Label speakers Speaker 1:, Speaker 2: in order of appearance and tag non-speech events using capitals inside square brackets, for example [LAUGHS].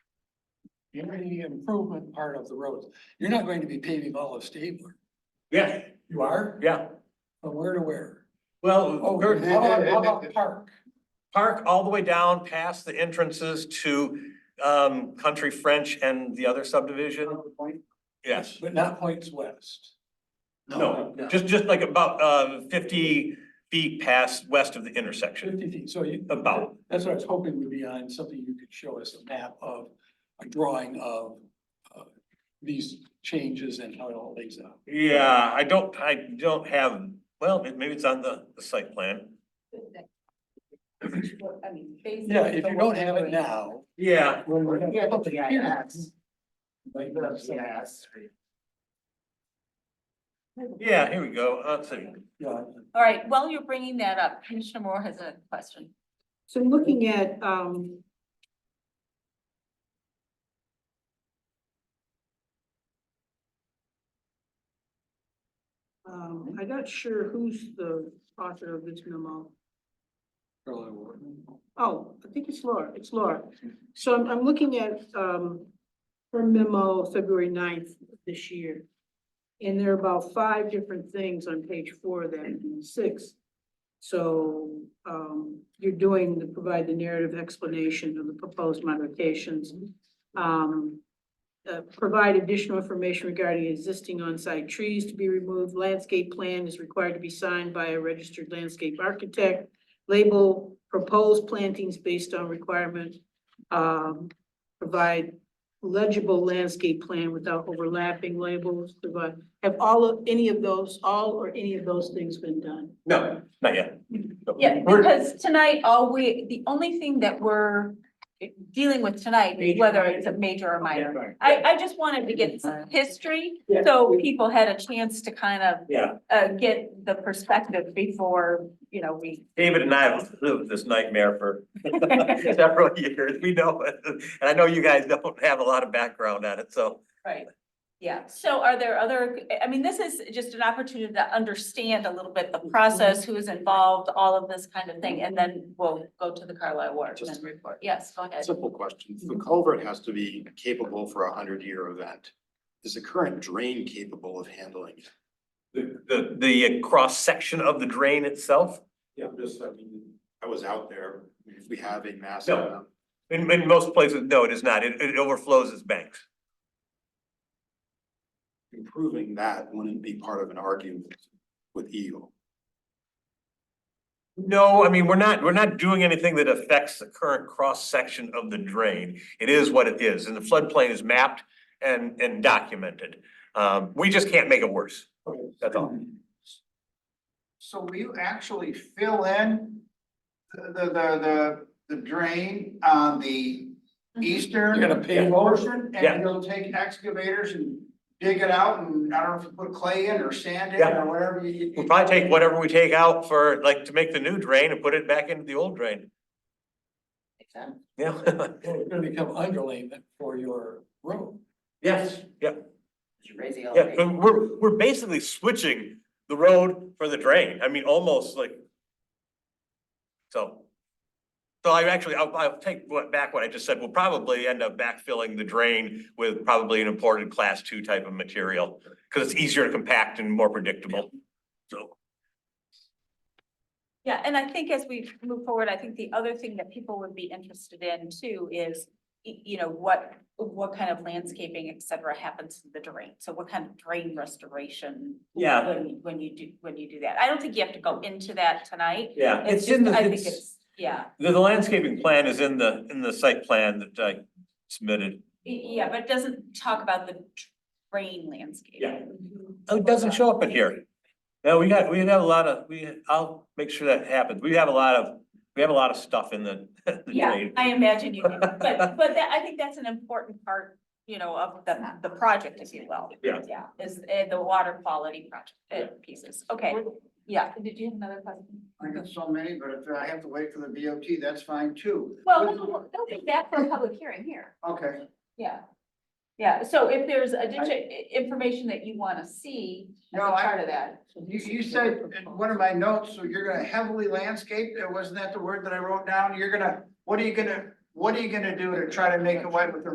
Speaker 1: community improvement part of the roads. You're not going to be paving all of Stabler.
Speaker 2: Yeah,
Speaker 1: You are?
Speaker 2: yeah.
Speaker 1: From where to where?
Speaker 2: Well,
Speaker 1: Oh,
Speaker 2: there-
Speaker 1: how about, how about Park?
Speaker 2: park all the way down past the entrances to um Country French and the other subdivision. Yes,
Speaker 1: But not Points West.
Speaker 2: no, just just like about uh fifty feet past west of the intersection.
Speaker 1: Fifty feet, so you.
Speaker 2: About.
Speaker 1: That's what I was hoping would be on something you could show us a map of, a drawing of, uh, these changes and how it all lays out.
Speaker 2: Yeah, I don't, I don't have, well, may- maybe it's on the the site plan.
Speaker 3: I mean, basically.
Speaker 1: Yeah, if you don't have it now.
Speaker 2: Yeah,
Speaker 1: when we're-
Speaker 4: Yeah, but the GIS.
Speaker 1: Like,
Speaker 4: The
Speaker 1: so-
Speaker 4: GIS.
Speaker 2: yeah, here we go. Uh, Let's see.
Speaker 1: Yeah,
Speaker 3: All right, while you're bringing that up, Commissioner Moore has a question.
Speaker 5: So looking at, um. Um, I'm not sure who's the author of this memo.
Speaker 1: Early warning.
Speaker 5: Oh, I think it's Laura, it's Laura. So I'm, I'm looking at, um, her memo, February 9th of this year. And there are about five different things on page four of that, six. So, um, you're doing the, provide the narrative explanation of the proposed modifications. Um, uh, provide additional information regarding existing on-site trees to be removed. Landscape plan is required to be signed by a registered landscape architect label proposed plantings based on requirement. Um, provide legible landscape plan without overlapping labels, provide, have all of, any of those, all or any of those things been done?
Speaker 2: No, not yet.
Speaker 3: Yeah,
Speaker 2: We're-
Speaker 3: because tonight, all we, the only thing that we're dealing with tonight is
Speaker 4: Major,
Speaker 3: whether
Speaker 4: minor.
Speaker 3: it's a major or minor.
Speaker 4: Right.
Speaker 3: I, I just wanted to get some history,
Speaker 4: Yeah.
Speaker 3: so people had a chance to kind of,
Speaker 2: Yeah,
Speaker 3: uh, get the perspective before, you know,
Speaker 1: [LAUGHS]
Speaker 3: we.
Speaker 2: David and I have lived this nightmare for [LAUGHS] several years. We know it. And I know you guys don't have a lot of background on it, so.
Speaker 3: Right. Yeah, so are there other, I mean, this is just an opportunity to understand a little bit the process, who is involved, all of this kind of thing, and then we'll go to the Carlisle Waterman
Speaker 6: Just-
Speaker 3: report. Yes, go ahead.
Speaker 6: Simple question. The culvert has to be capable for a hundred year event. Is the current drain capable of handling it?
Speaker 2: The, the, the cross section of the drain itself,
Speaker 6: Yeah, just, I mean. I was out there. If we have a mass.
Speaker 2: No.
Speaker 6: amount-
Speaker 2: in, in most places, no, it is not. It, it overflows its banks.
Speaker 6: Improving that wouldn't be part of an argument with Eagle.
Speaker 2: No, I mean, we're not, we're not doing anything that affects the current cross section of the drain. It is what it is, and the floodplain is mapped and, and documented. Um, we just can't make it worse. That's all.
Speaker 7: So will you actually fill in the, the, the, the drain on the
Speaker 3: Mm-hmm.
Speaker 7: eastern?
Speaker 1: You're gonna pave over?
Speaker 7: portion?
Speaker 2: Yeah.
Speaker 7: And you'll take excavators and dig it out and I don't know if you put clay in or sand in
Speaker 2: Yeah.
Speaker 7: or whatever you.
Speaker 2: We'll probably take whatever we take out for, like, to make the new drain and put it back into the old drain. Yeah. [LAUGHS]
Speaker 1: Well, It's gonna become underlayment for your road.
Speaker 2: Yes. Yeah,
Speaker 4: You're raising
Speaker 2: yeah,
Speaker 4: elevation.
Speaker 2: but we're, we're basically switching the road for the drain, I mean, almost like. So. So I actually, I'll, I'll take what, back what I just said, we'll probably end up backfilling the drain with probably an imported class two type of material. Cause it's easier to compact and more predictable, so.
Speaker 3: Yeah, and I think as we move forward, I think the other thing that people would be interested in too is, y- you know, what, what kind of landscaping, et cetera, happens to the drain? So what kind of drain restoration?
Speaker 2: Yeah.
Speaker 3: When, you- when you do, when you do that. I don't think you have to go into that tonight.
Speaker 2: Yeah.
Speaker 3: It's just, I think it's, yeah,
Speaker 2: The, the landscaping plan is in the, in the site plan that I submitted.
Speaker 3: Y- yeah, but it doesn't talk about the drain landscape.
Speaker 2: Yeah. Oh, it doesn't show up in here. No, we got, we have a lot of, we, I'll make sure that happens. We have a lot of, we have a lot of stuff in the. [LAUGHS] the
Speaker 3: Yeah,
Speaker 2: drain.
Speaker 3: I imagine you, do. but, but that, I think that's an important part, you know, of the, the project, if you will.
Speaker 2: Yeah.
Speaker 3: Yeah, is, uh, the water quality project, uh, pieces, okay, yeah, did you have another question?
Speaker 7: I got so many, but if I have to wait for the BOT, that's fine too.
Speaker 3: Well, no, no, don't think that for a public hearing here,
Speaker 7: Okay.
Speaker 3: yeah. Yeah, so if there's additional information that you wanna see as a
Speaker 7: No, I-
Speaker 3: part of that.
Speaker 7: You, you said in one of my notes, so you're gonna heavily landscape, uh, wasn't that the word that I wrote down? You're gonna, what are you gonna, what are you gonna do to try to make it white with the